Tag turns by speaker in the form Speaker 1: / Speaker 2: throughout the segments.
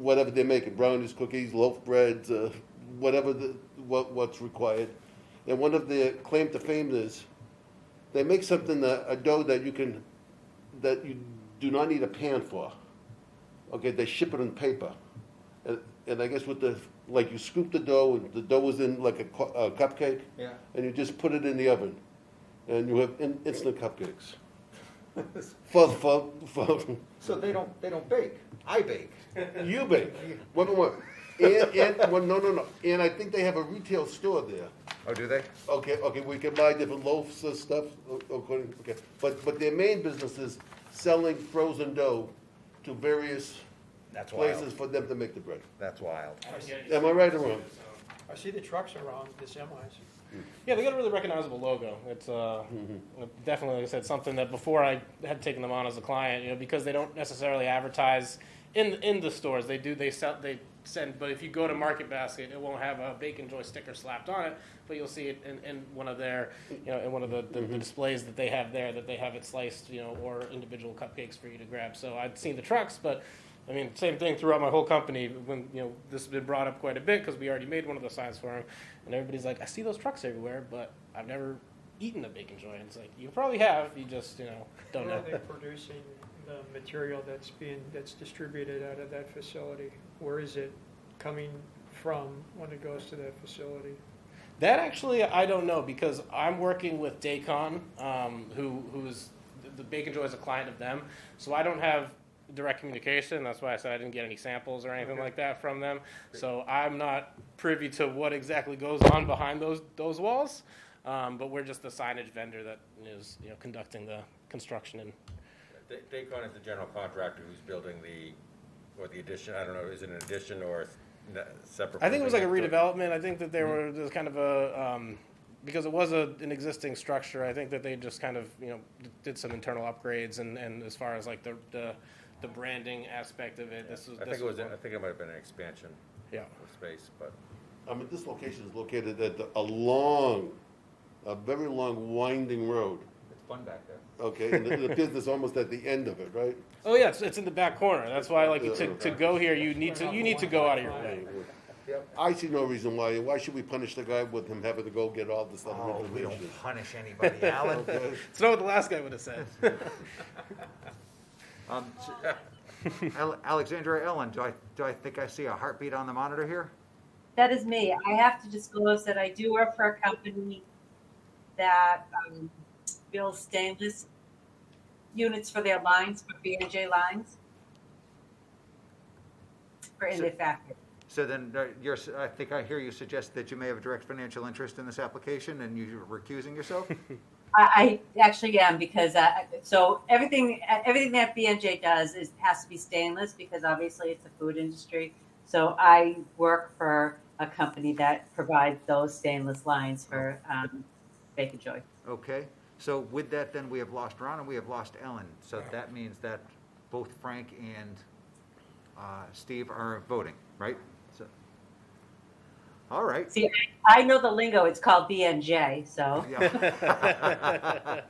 Speaker 1: whatever they're making, brownies, cookies, loaf breads, uh, whatever the, what, what's required. And one of the claim to fame is, they make something that, a dough that you can, that you do not need a pan for. Okay, they ship it in paper. And, and I guess with the, like you scoop the dough and the dough is in like a, cu- a cupcake.
Speaker 2: Yeah.
Speaker 1: And you just put it in the oven and you have in, instant cupcakes. For, for, for,
Speaker 2: So they don't, they don't bake. I bake.
Speaker 1: You bake. One more. And, and, well, no, no, no. And I think they have a retail store there.
Speaker 2: Oh, do they?
Speaker 1: Okay, okay, we can buy different loaves of stuff, o- according, okay. But, but their main business is selling frozen dough to various
Speaker 2: That's
Speaker 1: places
Speaker 2: wild.
Speaker 1: for them to make the bread.
Speaker 2: That's wild.
Speaker 3: I don't get it.
Speaker 1: Am I right or wrong?
Speaker 4: I see the trucks around the semis. Yeah, they got a really recognizable logo. It's uh, definitely, like I said, something that before I had taken them on as a client, you know, because they don't necessarily advertise in in the stores. They do, they sell, they send, but if you go to Market Basket, it won't have a Bacon Joy sticker slapped on it, but you'll see it in, in one of their, you know, in one of the, the, the displays that they have there that they have it sliced, you know, or individual cupcakes for you to grab. So I'd seen the trucks, but I mean, same thing throughout my whole company. When you know this has been brought up quite a bit because we already made one of those signs for him, and everybody's like, "I see those trucks everywhere, but I've never eaten a bacon joint." It's like you probably have, you just you know don't
Speaker 5: Where
Speaker 4: know.
Speaker 5: are they producing the material that's being, that's distributed out of that facility? Where is it coming from when it goes to that facility?
Speaker 4: That actually, I don't know because I'm working with Daycon, um, who who's the Bacon Joy is a client of them, so I don't have direct communication. That's why I said I didn't get any samples or anything like that from them. So I'm not privy to what exactly goes on behind those those walls. Um, but we're just the signage vendor that is you know conducting the construction and
Speaker 6: Da- Dacon is the general contractor who's building the, or the addition, I don't know, is it an addition or s- n- separate?
Speaker 4: I think it was like a
Speaker 6: building?
Speaker 4: redevelopment. I think that there were there was kind of a um, because it was a, an existing structure. I think that they just kind of you know d- did some internal upgrades and, and as far as like the the, the branding aspect of it, this was
Speaker 6: I
Speaker 4: this
Speaker 6: think it was,
Speaker 4: one.
Speaker 6: I think it might have been an expansion
Speaker 4: yeah.
Speaker 6: of space, but.
Speaker 1: I mean, this location is located at the- a long, a very long winding road,
Speaker 2: It's fun back there.
Speaker 1: okay? And the, the business almost at the end of it, right?
Speaker 4: Oh yeah, it's, it's in the back corner. That's why like to, to go here, you need to you need to go out of your way.
Speaker 1: I see no reason why, why should we punish the guy with him having to go get all this other
Speaker 2: Oh, we
Speaker 1: information?
Speaker 2: don't punish anybody, Alan.
Speaker 1: Okay?
Speaker 4: It's not what the last guy would have said.
Speaker 2: Um, s- Al- Alexandra Ellen, do I, do I think I see a heartbeat on the monitor here?
Speaker 7: That is me. I have to disclose that I do work for a company that um, builds stainless units for their lines, for B and J lines, for in their factory.
Speaker 2: So then uh, you're, s- I think I hear you suggest that you may have a direct financial interest in this application and you're recusing yourself?
Speaker 7: I, I actually am because I, so everything everything that B and J does is has to be stainless because obviously it's the food industry. So I work for a company that provides those stainless lines for um, Baker Joy.
Speaker 2: Okay, so with that, then we have lost Ron and we have lost Ellen. So that means that both Frank and uh, Steve are voting, right? So, All right.
Speaker 7: See, I know the lingo. It's called BNJ. So,
Speaker 2: Yeah.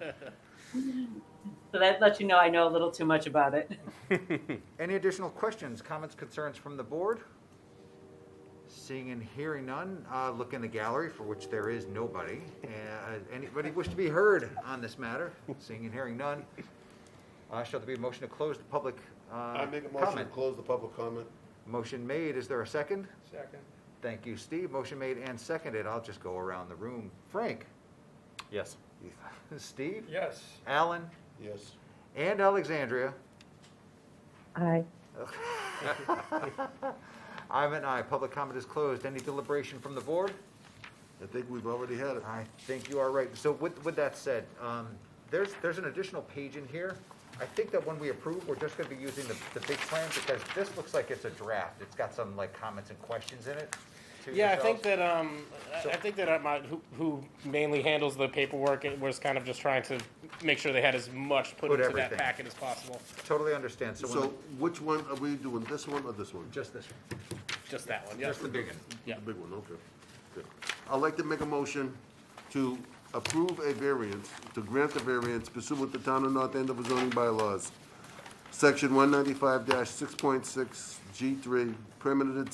Speaker 7: so that lets you know I know a little too much about it.
Speaker 2: Any additional questions, comments, concerns from the board? Seeing and hearing none, uh, look in the gallery, for which there is nobody. Uh, Anybody wish to be heard on this matter? Seeing and hearing none, uh, shall there be a motion to close the public uh,
Speaker 1: I make a motion to
Speaker 2: comment?
Speaker 1: close the public comment.
Speaker 2: Motion made, is there a second?
Speaker 5: Second.
Speaker 2: Thank you, Steve. Motion made and seconded. I'll just go around the room. Frank?
Speaker 6: Yes.
Speaker 2: Steve?
Speaker 5: Yes.
Speaker 2: Alan?
Speaker 1: Yes.
Speaker 2: And Alexandria?
Speaker 7: Aye.
Speaker 2: I'm an aye. Public comment is closed. Any deliberation from the board?
Speaker 1: I think we've already had it.
Speaker 2: I think you are right. So with, with that said, um, there's, there's an additional page in here. I think that when we approve, we're just gonna be using the, the big plan because this looks like it's a draft. It's got some like comments and questions in it. to
Speaker 4: Yeah, I think
Speaker 2: yourselves.
Speaker 4: that um, I- I think that uh, my who, who mainly handles the paperwork it was kind of just trying to make sure they had as much put,
Speaker 2: Put
Speaker 4: into
Speaker 2: everything.
Speaker 4: that packet as possible.
Speaker 2: Totally understand. So when,
Speaker 1: So
Speaker 2: the-
Speaker 1: which one, are we doing this one or this one?
Speaker 2: just this, one.
Speaker 4: Just that one. Yeah.
Speaker 2: just the big one.
Speaker 4: yeah.
Speaker 1: The big one, okay. Good. I'd like to make a motion to approve a variance, to grant the variance pursuant to town of North Andover zoning bylaws Section one ninety-five six point six G three, permitted